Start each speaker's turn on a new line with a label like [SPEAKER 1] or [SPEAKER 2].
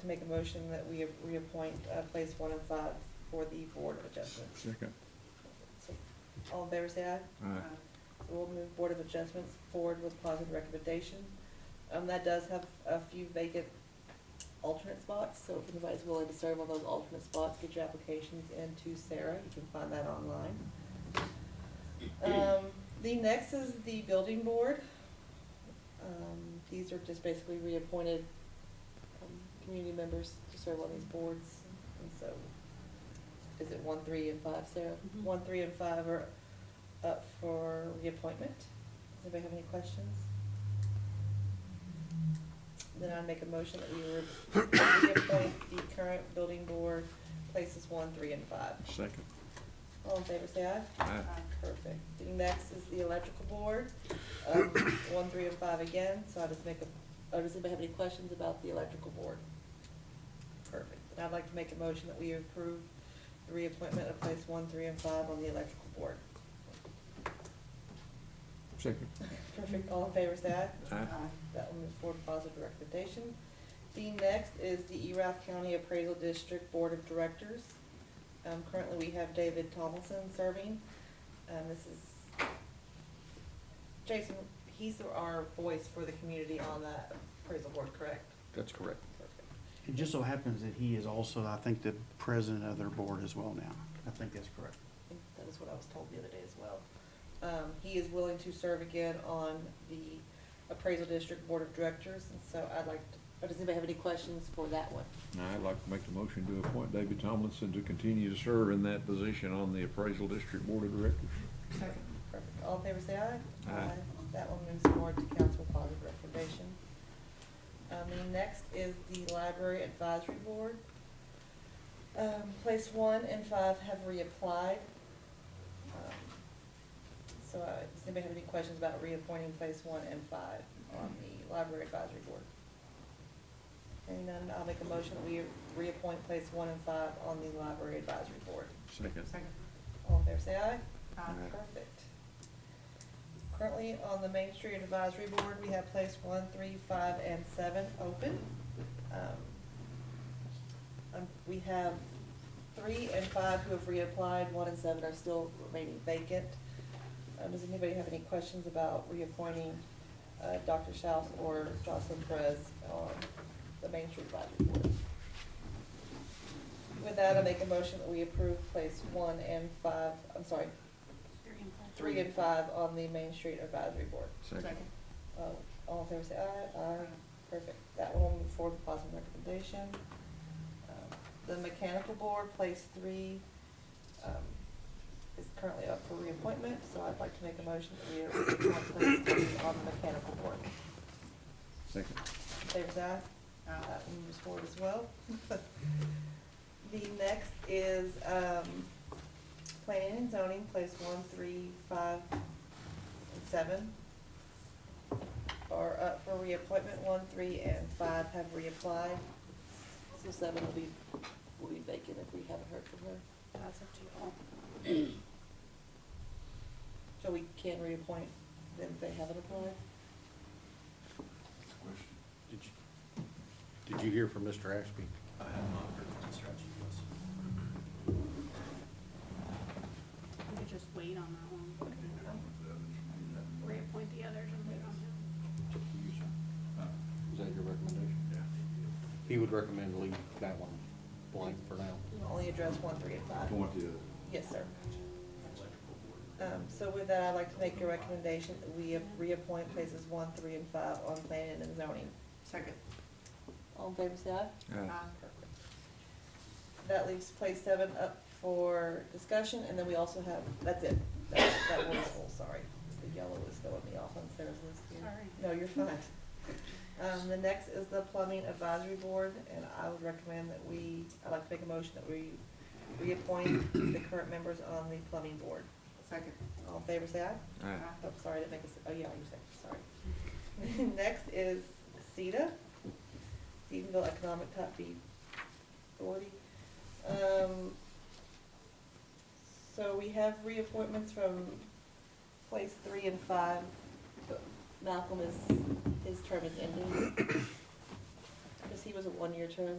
[SPEAKER 1] to make a motion that we reappoint uh, place one and five for the Board of Adjustments.
[SPEAKER 2] Second.
[SPEAKER 1] So, All in favor, say aye.
[SPEAKER 2] Aye.
[SPEAKER 1] So We'll move Board of Adjustments forward with positive recommendation. Um, that does have a few vacant alternate spots, so if anybody's willing to serve on those alternate spots, get your applications in to Sarah, you can find that online. Um, the next is the Building Board. Um, these are just basically reappointed, um, community members to serve on these boards, and so, is it one, three, and five, Sarah?
[SPEAKER 3] Mhm.
[SPEAKER 1] One, three, and five are up for reappointment. Does anybody have any questions? Then I'd make a motion that we re- reappoint the current building board, places one, three, and five.
[SPEAKER 2] Second.
[SPEAKER 1] All in favor, say aye.
[SPEAKER 2] Aye.
[SPEAKER 1] Perfect. The next is the electrical board, um, one, three, and five again, so I just make a, oh, does anybody have any questions about the electrical board? Perfect. And I'd like to make a motion that we approve the reappointment of place one, three, and five on the electrical board.
[SPEAKER 2] Second.
[SPEAKER 1] Perfect. All in favor, say aye.
[SPEAKER 2] Aye.
[SPEAKER 1] That will move forward with positive recommendation. The next is the Erath County Appraisal District Board of Directors. Um, currently, we have David Tomlinson serving. Um, this is, Jason, he's our voice for the community on that appraisal board, correct?
[SPEAKER 2] That's correct.
[SPEAKER 1] Perfect.
[SPEAKER 4] It just so happens that he is also, I think, the president of their board as well now. I think that's correct.
[SPEAKER 1] I think That is what I was told the other day as well. Um, he is willing to serve again on the Appraisal District Board of Directors, and so I'd like, to- or does anybody have any questions for that one?
[SPEAKER 2] Now, I'd like to make the motion to appoint David Tomlinson to continue to serve in that position on the appraisal district board of directors.
[SPEAKER 1] Perfect. All in favor, say aye.
[SPEAKER 2] Aye.
[SPEAKER 1] That one moves forward to council positive recommendation. Um, the next is the library advisory board. Um, place one and five have reapplied. Um, So, uh, does anybody have any questions about reappointing place one and five on the library advisory board? And then I'll make a motion that we reappoint place one and five on the library advisory board.
[SPEAKER 2] Second.
[SPEAKER 1] All in favor, say aye.
[SPEAKER 2] Aye.
[SPEAKER 1] Perfect. Currently, on the Main Street Advisory Board, we have place one, three, five, and seven open. Um, um, We have three and five who have reapplied, one and seven are still remaining vacant. Um, Does anybody have any questions about reappointing uh, Dr. Schaus or Jocelyn Perez on the Main Street Advisory Board? With that, I make a motion that we approve place one and five, I'm sorry, three and five on the Main Street Advisory Board.
[SPEAKER 2] Second.
[SPEAKER 1] Uh, All in favor, say aye. Aye. Perfect. That one will move forward with positive recommendation. Um, The Mechanical Board, place three, um, is currently up for reappointment, so I'd like to make a motion that we appoint place three on the Mechanical Board.
[SPEAKER 2] Second.
[SPEAKER 1] Favors aye? That one moves forward as well. The next is, um, planning and zoning, place one, three, five, and seven are up for reappointment, one, three, and five have reapplied. So seven will be, will be vacant if we haven't heard from her.
[SPEAKER 3] That's up to you all.
[SPEAKER 1] So we can reappoint them if they haven't applied?
[SPEAKER 5] Did you, did you hear from Mr. Ashby?
[SPEAKER 6] I have not heard from Mr. Ashby, yes.
[SPEAKER 3] We could just wait on that one. Reappoint the others and wait on him.
[SPEAKER 5] Is that your recommendation? Yeah. He would recommend leave that one blank for now.
[SPEAKER 1] Only address one, three, and five.
[SPEAKER 2] Point to
[SPEAKER 1] Yes, sir. Um, so with that, I'd like to make a recommendation that we reappoint places one, three, and five on planning and zoning.
[SPEAKER 3] Second.
[SPEAKER 1] All in favor, say aye.
[SPEAKER 2] Aye.
[SPEAKER 1] Perfect. That leaves place seven up for discussion, and then we also have, that's it. That, that one is full, sorry. The yellow is throwing me off on Sarah's list here.
[SPEAKER 3] Sorry.
[SPEAKER 1] No, you're fine. Um, the next is the plumbing advisory board, and I would recommend that we, I'd like to make a motion that we reappoint the current members on the plumbing board.
[SPEAKER 3] Second.
[SPEAKER 1] All in favor, say aye.
[SPEAKER 2] Aye.
[SPEAKER 1] Oh, sorry, that makes, oh, yeah, you said, sorry. Next is CETA, Stephenville Economic Top B Authority. Um, So we have reappointments from place three and five. but Malcolm is, his term is ending. Because he was a one-year term.